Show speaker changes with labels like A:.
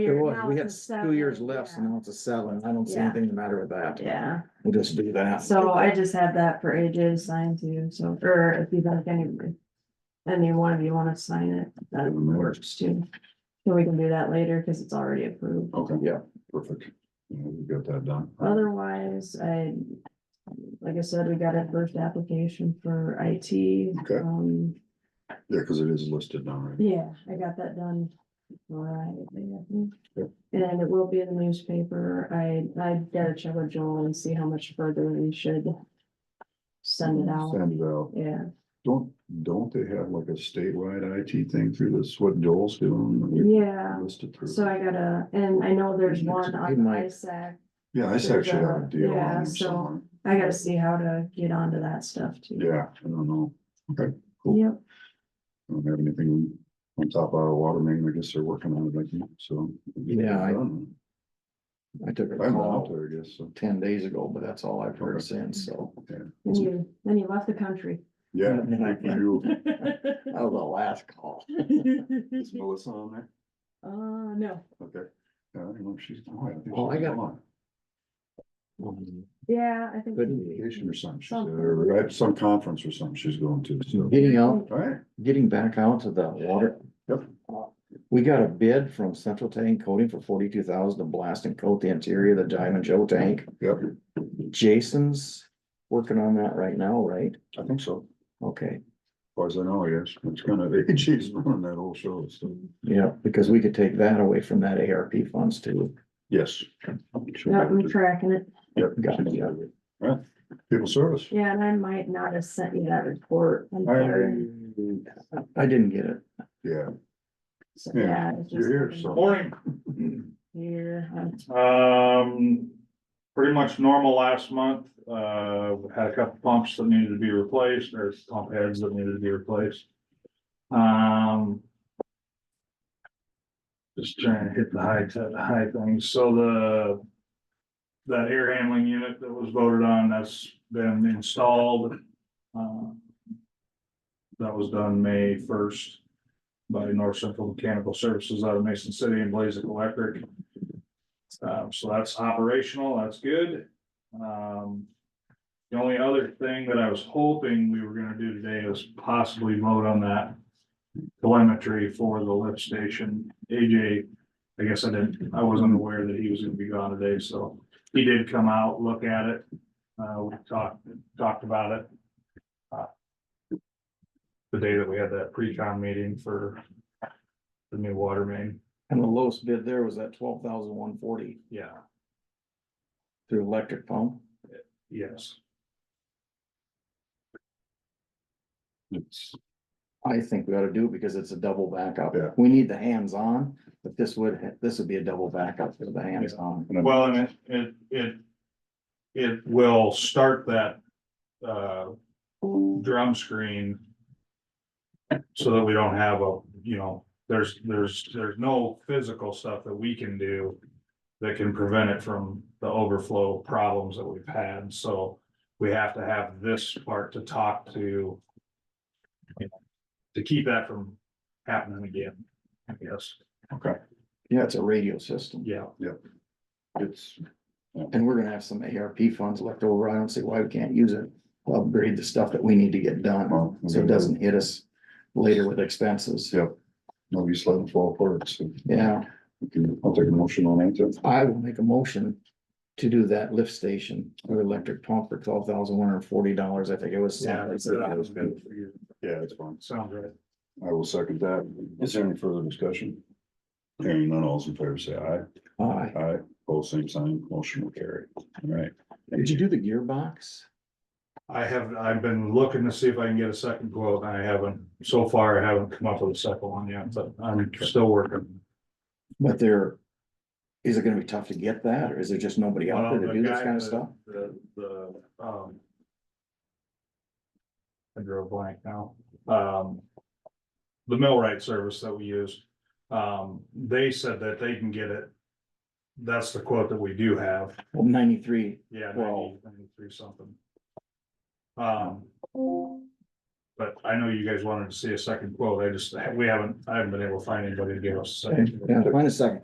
A: It was,
B: now
A: we had
B: it's
A: two years
B: seven,
A: left
B: yeah.
A: and now it's a seven. I don't see
B: Yeah.
A: anything the matter with that.
B: Yeah,
A: We'll just do that.
B: so I just had that for AJ to sign too, so, or if you think anybody. Any one of you wanna sign it, that works too. So we can do that later, cause it's already approved.
C: Okay.
A: Yeah.
C: Perfect. Yeah, We got that done.
B: Otherwise, I, like I said, we got a first application for IT.
C: Okay.
B: Um,
C: Yeah, because it is listed now, right?
B: yeah, I got that done. Friday, I think.
C: Yep.
B: And it will be in the newspaper. I, I gotta check with Joel and see how much further we should send it out.
C: Send it out.
B: Yeah,
C: Don't, don't they have like a statewide IT thing through this, what Joel's doing? that we
B: yeah.
C: Listed through.
B: So I gotta, and I know there's one on
A: Good night.
B: ISAC.
C: Yeah, I actually have a deal on
B: Yeah,
C: it
B: so-
C: somewhere.
B: I gotta see how to get onto that stuff too.
C: Yeah, I don't know. Okay, cool.
B: Yep,
C: I don't have anything on top of our water main. I guess they're working on it, I think, so.
A: Yeah, I- I took a
C: I'm out
A: call
C: there, I guess, so.
A: ten days ago, but that's all I've heard
C: Okay.
A: since, so.
B: and you, then you left the country.
C: Yeah.
A: And I-
C: you-
A: That was the last call.
C: Is Melissa on there?
B: Uh, no,
C: Okay. Yeah, I don't know if she's. oh, I think
A: Oh, I
C: she's
A: got-
C: on
B: yeah, I think.
A: Couldn't be.
C: Vacation or something, she's,
B: Something.
C: or at some conference or something she's going to, so.
A: Getting out,
C: All right,
A: getting back out to the water.
C: Yep.
A: We got a bid from Central Tank Coating for forty-two thousand to blast and coat the interior of the Diamond Joe tank.
C: yep,
A: Jason's working on that right now, right?
C: I think so,
A: Okay,
C: as far as I know, yes, it's kind of, she's running that whole show, so,
A: yeah, because we could take that away from that ARP funds too.
C: yes.
B: Yep, I'm tracking it.
C: Yep.
A: Got it, yeah.
C: Right, people service.
B: Yeah, and I might not have sent you that report. I'm
C: I-
B: sorry.
A: I didn't get it.
C: Yeah,
B: So,
C: yeah,
B: Yeah. it's
C: you're here,
B: just-
C: so,
D: Morning,
B: Here, um,
D: um, pretty much normal last month, uh, had a couple pumps that needed to be replaced, or pump heads that needed to be replaced. Um. Just trying to hit the high, t- high things, so the. That air handling unit that was voted on, that's been installed. Um, That was done May first by North Central Mechanical Services out of Mason City and Blazik Electric. Um, so that's operational, that's good. Um. The only other thing that I was hoping we were gonna do today was possibly vote on that. Telemetry for the lift station. AJ, I guess I didn't, I wasn't aware that he was gonna be gone today, so he did come out, look at it. Uh, we talked, talked about it. uh, The day that we had that pre-con meeting for the new water main,
A: And the lowest bid there was at twelve thousand one forty
D: yeah,
A: through electric pump.
D: yes.
C: it's,
A: I think we ought to do it because it's a double backup.
C: Yeah.
A: We need the hands-on, but this would, this would be a double backup for the hands-on.
D: Well, and it, it, it, it will start that, uh, drum screen. So that we don't have a, you know, there's, there's, there's no physical stuff that we can do. That can prevent it from the overflow problems that we've had, so we have to have this part to talk to. you know, To keep that from happening again, I guess,
C: okay,
A: Yeah, it's a radio system.
D: yeah.
C: it's,
A: And we're gonna have some ARP funds left over. I don't see why we can't use it. Upgrade the stuff that we need to get done,
C: well,
A: so it doesn't hit us later with expenses.
C: Yep, no use letting it fall apart, so
A: Yeah,
C: we can, I'll take a motion on that, too.
A: I will make a motion to do that lift station or electric pump for twelve thousand one hundred and forty dollars. I think it was.
C: yeah, it's fine,
D: Sounds right.
C: I will second that, is there any further discussion? Hearing none, all's in favor, say aye,
A: Aye.
C: aye, both same sign, motion will carry, all right.
A: Did you do the gearbox?
D: I have, I've been looking to see if I can get a second quote, and I haven't, so far, I haven't come up with a second one yet, but I'm still working.
A: But there, is it gonna be tough to get that, or is there just nobody out there to do this kind of stuff?
D: The, the, um. I drew a blank now, um. The millwright service that we use, um, they said that they can get it. That's the quote that we do have,
A: Well, ninety-three,
D: yeah,
A: Well-
D: ninety, ninety-three something. Um. But I know you guys wanted to see a second quote, I just, we haven't, I haven't been able to find anybody to give us a
A: Okay,
D: second.
A: yeah, find a second